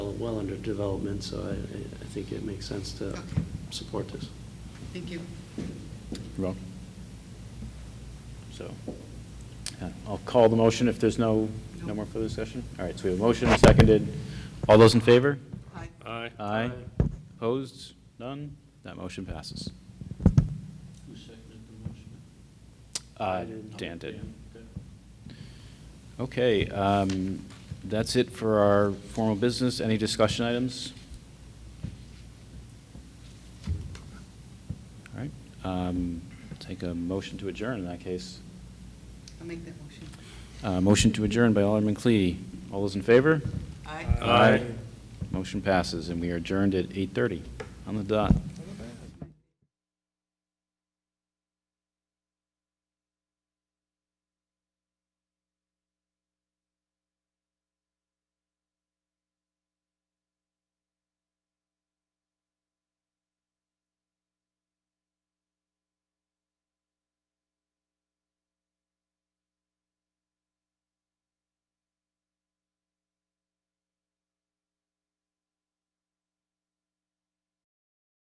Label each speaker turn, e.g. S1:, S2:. S1: well under development, so I, I- I think it makes sense to
S2: Okay.
S1: support this.
S2: Thank you.
S3: You're welcome. So, yeah, I'll call the motion if there's no, no
S2: No.
S3: more further discussion. All right, so we have a motion and seconded. All those in favor?
S2: Aye.
S4: Aye.
S3: Aye. Opposed? None? That motion passes.
S4: Who seconded the motion?
S3: Uh, Dan did. Okay, um, that's it for our formal business. Any discussion items? All right, um, take a motion to adjourn in that case.
S2: I'll make that motion.
S3: Uh, Motion to adjourn by Alderman Clee. All those in favor?
S2: Aye.
S4: Aye.
S3: Motion passes, and we are adjourned at 8:30 on the dot.